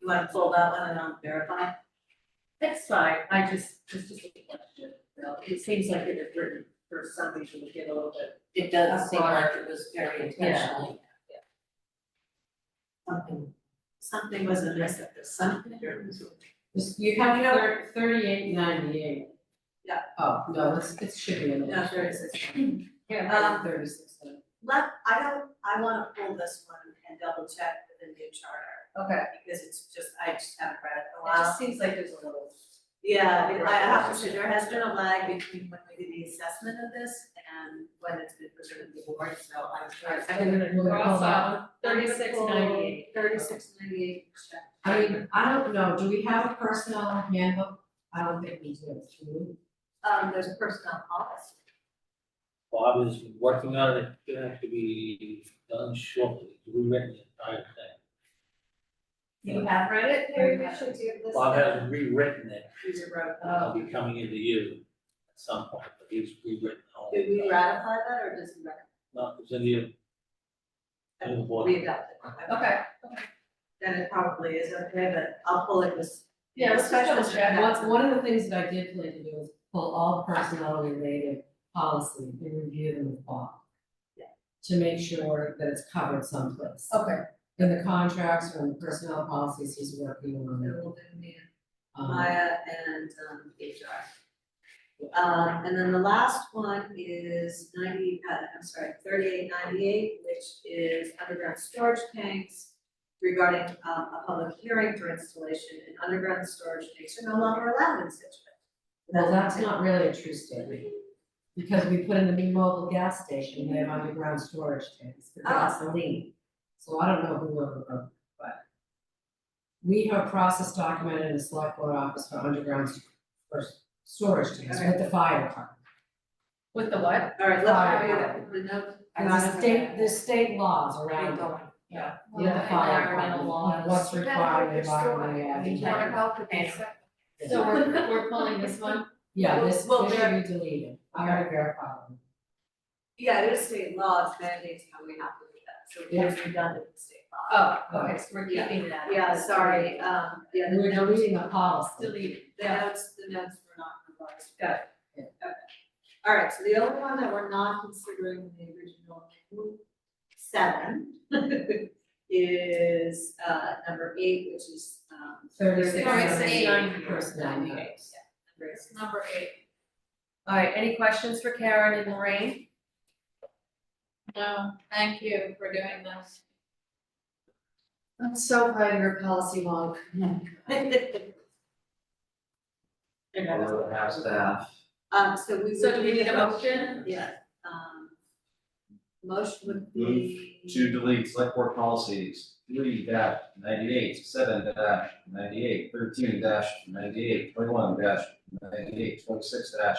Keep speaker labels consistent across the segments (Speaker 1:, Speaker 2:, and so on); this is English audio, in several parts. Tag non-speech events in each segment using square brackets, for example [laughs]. Speaker 1: You wanna pull that one and I'll verify?
Speaker 2: That's fine, I just, just just a question, you know, it seems like it is written for something to get a little bit.
Speaker 1: It
Speaker 2: does seem like
Speaker 1: it was very
Speaker 2: intentional.
Speaker 1: Something, something was amiss at this, something.
Speaker 3: You have thir- thirty-eight ninety-eight.
Speaker 1: Yeah.
Speaker 3: Oh, no, it's, it should be in
Speaker 1: Yeah,
Speaker 3: there.
Speaker 1: thirty-six.
Speaker 3: Yeah,
Speaker 1: Um,
Speaker 3: thirty-six then.
Speaker 1: Let, I don't, I wanna pull this one and double check with the new charter,
Speaker 2: Okay,
Speaker 1: because it's just, I just haven't read it in a
Speaker 2: it
Speaker 1: while.
Speaker 2: just seems like there's a little.
Speaker 1: Yeah, I- I have to say, there has been a lag between when we did the assessment of this and when it's been presented to the board, so I'm sure.
Speaker 3: Cross out
Speaker 2: Thirty-six ninety-eight.
Speaker 1: Thirty-six ninety-eight, check.
Speaker 3: I mean, I don't know, do we have a personnel handbook? I don't think we do, do we?
Speaker 1: Um, there's a personnel policy.
Speaker 4: Bob is working on it, it's gonna have to be done shortly, He's rewritten the entire thing.
Speaker 2: You have read it, maybe we should do this.
Speaker 4: Bob has rewritten it,
Speaker 1: These are broken.
Speaker 4: it'll be coming into you at some point, but he's rewritten all
Speaker 1: Did
Speaker 4: the
Speaker 1: we
Speaker 4: time.
Speaker 1: ratify that or does we
Speaker 4: No, it's in you. In the board.
Speaker 1: we adopt it?
Speaker 2: Okay,
Speaker 1: Then it probably is okay, but I'll pull it this.
Speaker 2: yeah, let's just double
Speaker 3: And
Speaker 2: check.
Speaker 3: One, one of the things that I did plan to do is pull all personnel related policy and review them with Bob.
Speaker 1: Yeah.
Speaker 3: To make sure that it's covered someplace.
Speaker 2: Okay,
Speaker 3: In the contracts or in the personnel policies he's working
Speaker 1: And
Speaker 3: on.
Speaker 1: we'll do me and
Speaker 3: um,
Speaker 1: Maya and um HR. Um, and then the last one is ninety, uh, I'm sorry, thirty-eight ninety-eight, which is underground storage tanks. Regarding um a public hearing for installation and underground storage tanks are no longer allowed in Situate.
Speaker 3: Well, that's not really a true statement, because we put in a new mobile gas station, they have underground storage tanks for
Speaker 2: Ah.
Speaker 3: gasoline. So I don't know who wrote the book, but. We have a process documented in the select board office for underground st- for s- storage tanks with the fire department.
Speaker 2: with the what?
Speaker 1: All right, let me read the note.
Speaker 3: And the state, the state laws around it.
Speaker 2: Yeah.
Speaker 3: You have the fire
Speaker 2: Environmental
Speaker 3: department,
Speaker 2: laws.
Speaker 3: what's required, environmental, yeah.
Speaker 2: We can't So we're, we're pulling this one?
Speaker 3: Yeah, this,
Speaker 1: Well,
Speaker 3: this should
Speaker 1: there-
Speaker 3: be deleted, I gotta verify them.
Speaker 1: Yeah, it is state law, it mandates how we have to do that, so it is redundant in state law.
Speaker 2: [laughs] Oh, okay, so we're keeping that.
Speaker 1: Yeah, sorry,
Speaker 2: Uh,
Speaker 1: um, yeah, the
Speaker 3: We're
Speaker 1: notes,
Speaker 3: deleting the policy,
Speaker 2: Delete,
Speaker 1: the notes, the notes were not revised.
Speaker 2: Got
Speaker 3: it.
Speaker 1: Okay. All right, so the only one that we're not considering in the original Rule seven [laughs] is, uh, number eight, which is, um,
Speaker 3: thirty-six.
Speaker 1: Thirty-six,
Speaker 3: ninety,
Speaker 2: ninety.
Speaker 3: personnel matters.
Speaker 1: number eight.
Speaker 2: Number eight. All right, any questions for Karen and Lorraine? No, thank you for doing this.
Speaker 5: I'm so glad you're a policy wonk.
Speaker 2: [laughs]
Speaker 6: Or have staff.
Speaker 1: Um, so we.
Speaker 2: So do we need a motion?
Speaker 1: Yeah, um, motion would be.
Speaker 6: To delete select board policies, three dash ninety-eight, seven dash ninety-eight, thirteen dash ninety-eight, twenty-one dash ninety-eight, twenty-six dash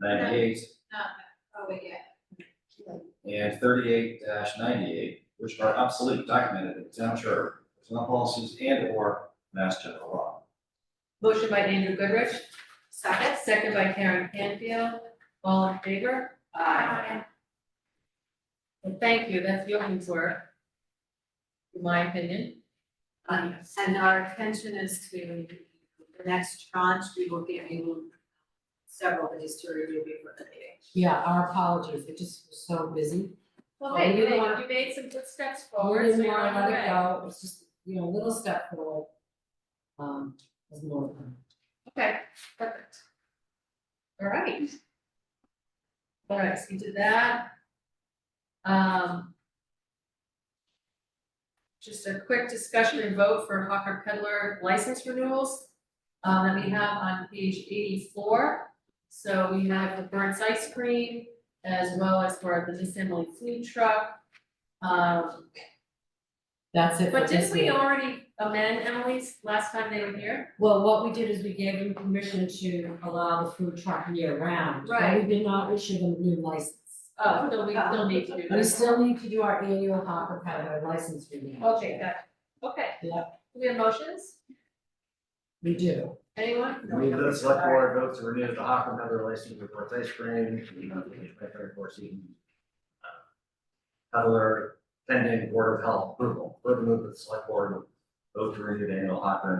Speaker 6: ninety-eight,
Speaker 2: Oh, yeah.
Speaker 6: and thirty-eight dash ninety-eight, which are obsolete documented in town charter, personnel policies and or mass general law.
Speaker 2: Motion by Andrew Goodrich,
Speaker 1: Second?
Speaker 2: second by Karen Canfield, all in favor? Aye. And thank you, that's Johan's work. In my opinion.
Speaker 1: Um, and our intention is to, the next tranche, we will give you several days to review before the meeting.
Speaker 3: Yeah, our apologies, it just was so busy.
Speaker 2: Well,
Speaker 3: Oh, hey, you you made- want-
Speaker 2: you made some good steps
Speaker 3: We didn't wanna let it go, it's just, you know, a little step forward. Um, was more than.
Speaker 2: Okay, perfect. All right. All right, so you did that. Um. Just a quick discussion and vote for Hawker Peddler license renewals, um, that we have on page eighty-four. So we have the Burns Ice Cream as well as for the disassembly food truck. Um,
Speaker 3: That's it for
Speaker 2: but
Speaker 3: this
Speaker 2: didn't
Speaker 3: week.
Speaker 2: we already amend Emily's last time they were here?
Speaker 3: Well, what we did is we gave them permission to allow the food truck year round. but
Speaker 2: Right.
Speaker 3: We did not issue them a new license.
Speaker 2: Oh, no, we still need to do that.
Speaker 3: We still need to do our annual hopper peddler license renewal.
Speaker 2: Okay, got it. Okay.
Speaker 3: Yep.
Speaker 2: Do we have motions?
Speaker 3: We do.
Speaker 2: Anyone?
Speaker 6: We, the select board vote to renew the Hocker member relationship with North Ice Cream, you know, the twenty-third board season. Peddler pending Board of Health approval, would move the select board vote to renew the annual hot burn